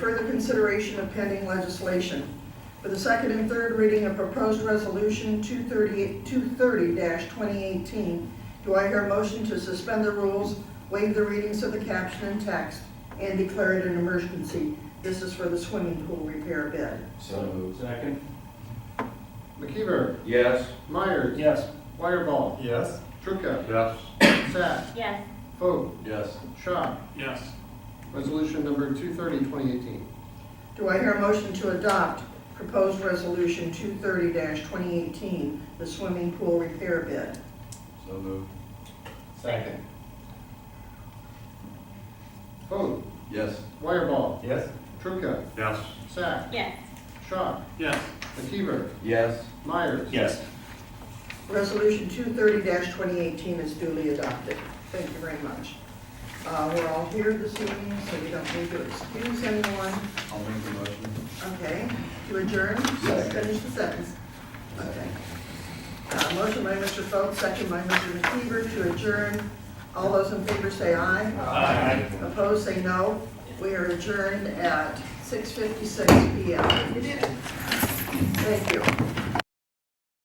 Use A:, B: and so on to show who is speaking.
A: consideration of pending legislation. For the second and third reading of proposed resolution 238 230-2018, do I hear a motion to suspend the rules, waive the readings of the caption and text, and declare it an emergency? This is for the swimming pool repair bid.
B: So moved.
C: Second?
D: McKeever,
B: Yes.
D: Myers,
C: Yes.
D: Wireball,
C: Yes.
D: Trucca,
B: Yes.
D: Sack,
E: yes,
D: Foote,
B: Yes.
D: Shaw.
C: Yes.
D: Resolution number 230, 2018.
A: Do I hear a motion to adopt proposed resolution 230-2018, the swimming pool repair bid?
B: So moved.
D: Second. Foote,
B: Yes.
D: Wireball,
C: Yes.
D: Trucca,
B: Yes.
D: Sack,
E: yes,
D: Shaw,
C: Yes.
D: McKeever,
B: Yes.
D: Myers.
C: Yes.
A: Resolution 230-2018 is duly adopted. Thank you very much. Uh, We're all here this evening, so we don't need to excuse anyone.
B: I'll make the motion.
A: Okay, to adjourn?
B: Second.
A: Finish the sentence. Okay. Uh, Motion by Mr. Foat, second by Mr. McKeever to adjourn. All those in favor say aye.
C: Aye.
A: Opposed, say no. We are adjourned at 6:56 PM. Thank you.